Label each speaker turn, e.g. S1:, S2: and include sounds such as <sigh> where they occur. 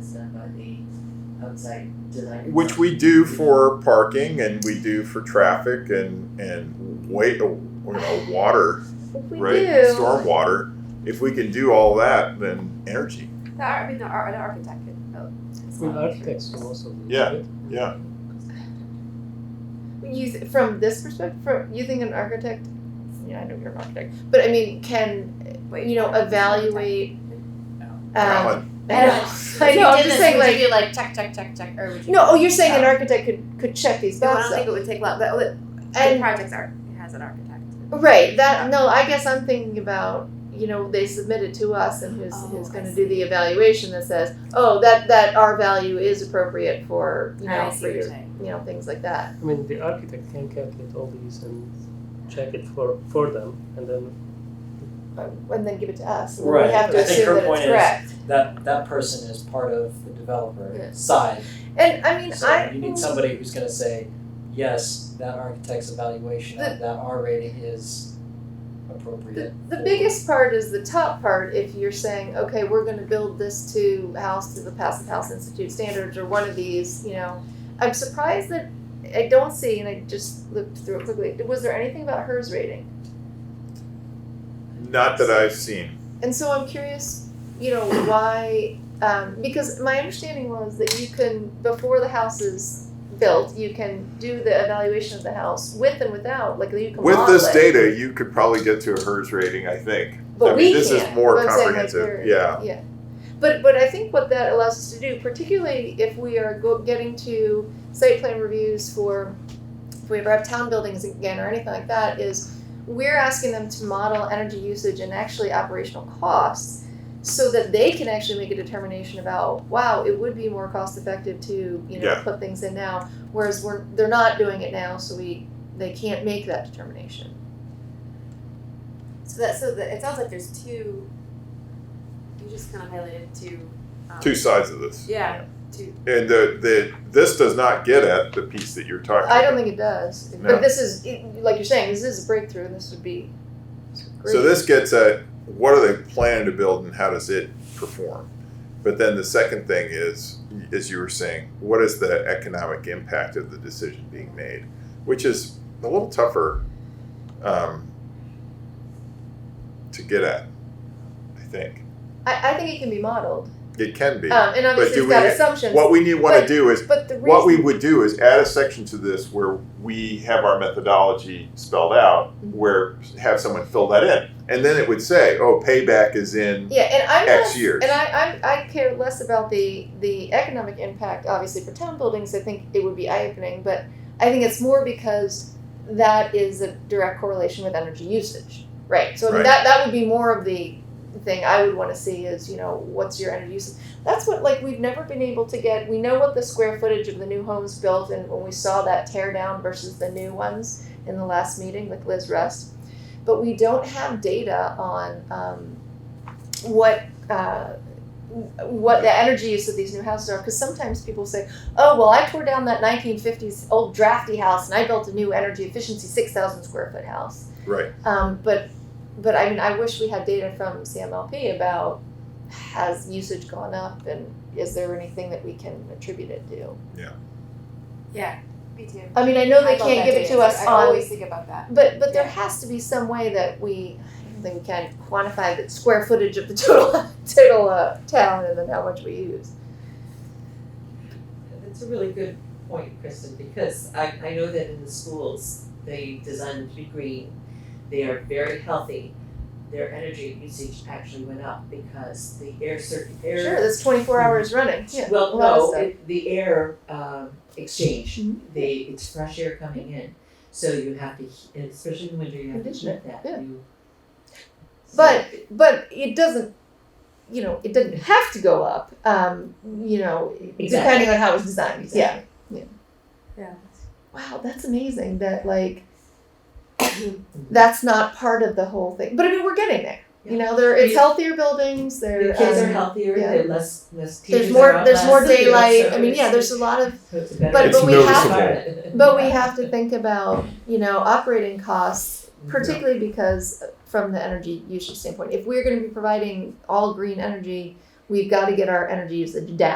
S1: stuff on the outside design.
S2: which we do for parking and we do for traffic and and wait you know water
S3: If we
S2: right
S3: do,
S2: storm water if we can do all that then energy
S3: the, ar- I mean, the, ar- the architect could. Oh, it's
S4: Well,
S3: not-
S4: architects can also. look
S2: Yeah.
S4: at it.
S2: yeah
S5: You th- from this perspective, from you think an architect, yeah, I know you're an architect, but I mean, can
S3: Wait,
S5: you know
S3: no, it's not <laughs>
S5: evaluate?
S1: No.
S5: Um,
S2: Alan,
S5: <laughs> I know. I know. I'm just saying, like,
S1: you like check, check, check, check, or would you?
S5: no. Oh, you're saying an architect could could check these
S3: No, I
S5: boxes.
S3: don't think it would take long, but uh, the
S5: and
S3: project's art, it has an architect.
S5: Right. That no, I guess I'm thinking about you know they submit it to us and who's
S3: Oh,
S5: who's
S3: I
S5: going to do the evaluation that says oh that that our value is appropriate for you know
S3: I see
S5: for
S3: what you're
S5: your
S3: saying.
S5: you know things like that.
S4: I mean, the architect can calculate all these and check it for, for them, and then,
S5: Um, and then give it to us. and
S6: Right.
S5: We have to
S6: I think
S5: assume
S6: her
S5: that
S6: point
S5: it's
S6: is-
S5: correct.
S6: That that person is part of the
S5: Yeah.
S6: developer side.
S5: And I mean
S6: So
S5: I
S6: you need somebody who's gonna say, yes, that architect's evaluation of that R rating is
S5: The,
S6: appropriate.
S5: the biggest part is the top part. If you're saying, okay, we're going to build this to house to the Passive House Institute standards or one of these, you know, I'm surprised that I don't see, and I just looked through it quickly. Was there anything about hers rating?
S2: not that I've seen
S5: And so I'm curious, you know, why? Um, because my understanding was that you can, before the house is built, you can do the evaluation of the house with and without, like you can
S2: with
S5: model
S2: this
S5: it.
S2: data you could probably get to a hers rating I think
S5: But
S2: I mean
S5: we
S2: this
S5: can't.
S2: is more
S5: But I'm saying, like,
S2: comprehensive
S5: we're-
S2: yeah
S5: But but I think what that allows us to do, particularly if we are go, getting to site plan reviews for if we ever have town buildings again or anything like that, is we're asking them to model energy usage and actually operational costs so that they can actually make a determination about wow it would be more cost effective to you know
S2: Yeah.
S5: put things in now whereas we're they're not doing it now so we they can't make that determination
S3: So that, so that, it sounds like there's two, you just kind of highlighted two. um,
S2: two sides of this
S3: Yeah, two.
S2: and the, the this does not get at the piece that you're talking
S5: i
S2: about
S5: don't think it does
S2: No.
S5: but this is like you're saying this is a breakthrough and this would be great.
S2: So this gets at what are they planning to build and how does it perform? But then the second thing is, as you were saying, what is the economic impact of the decision being made? Which is a little tougher um, to get at, I think.
S5: I, I think it can be modeled.
S2: It can be.
S5: Um, and obviously,
S2: do
S5: it's got
S2: we-
S5: assumptions.
S2: What we need want to
S5: but-
S2: do is,
S5: but the reason,
S2: what we would do is add a section to this where we have our methodology spelled out,
S5: Mm-hmm.
S2: where have someone fill that in. And then it would say, oh, payback is in
S5: yeah, and I'm
S2: X
S5: not,
S2: years.
S5: and I, I I care less about the the economic impact. Obviously, for town buildings, I think it would be eye opening, but I think it's more because that is a direct correlation with energy usage, right? So I mean,
S2: Right.
S5: that that would be more of the thing I would want to see is you know what's your energy usage. That's what like we've never been able to get. We know what the square footage of the new homes built, and when we saw that tear down versus the new ones in the last meeting with Liz Rust, but we don't have data on um, what. Uh, what the energy use of these new houses are because sometimes people say oh well i tore down that 1950s old drafty house and i built a new energy efficiency 6000 square foot house
S2: Right.
S5: um, but but i mean i wish we had data from cmlp about has usage gone up and is there anything that we can attribute it to
S3: Yeah. Me too.
S5: i mean i know they
S3: I love
S5: can't
S3: that
S5: give it
S3: data.
S5: to us
S3: I
S5: on
S3: always think about that.
S5: but but there
S3: Yeah.
S5: has to be some way that we i don't think we can quantify the square footage of the total <laughs> total uh, town and then how much we use
S7: That's a really good point, Kristen, because I, I know that in the schools, they design them to be green. They are very healthy. Their energy usage actually went up because the air circ, air.
S5: sure that's 24 hours running yeah, a
S7: Well,
S5: lot of
S7: no,
S5: stuff.
S7: it- the air, um, exchange,
S5: Mhm.
S7: they, it's fresh air coming in. So you have to, he- and especially in the winter, you have to
S5: Condition
S7: heat
S5: it,
S7: that,
S5: yeah.
S7: you. So-
S5: But but it doesn't, you know, it doesn't have to go up. Um, you know, depending on how it's designed. Yeah.
S3: Yeah.
S5: Wow, that's amazing. That like, that's not part of the whole thing. But I mean, we're getting there. You know, there
S7: Mm-hmm.
S5: it's
S7: Yeah.
S5: healthier buildings. There
S7: Their kids are
S5: um,
S7: healthier,
S5: yeah.
S7: they're less, less
S5: There's
S7: teachers are
S5: more.
S7: out
S5: There's
S7: less,
S5: more
S7: you know,
S5: daylight.
S7: so
S5: I mean, yeah.
S7: it's-
S5: There's a lot of.
S7: so it's a better
S5: But- but we have-
S7: environment. <laughs>
S5: <laughs> But we have to think about you know operating costs, particularly because uh, from the energy usage standpoint, if we're going to be providing all green energy, we've got to get our energy usage down.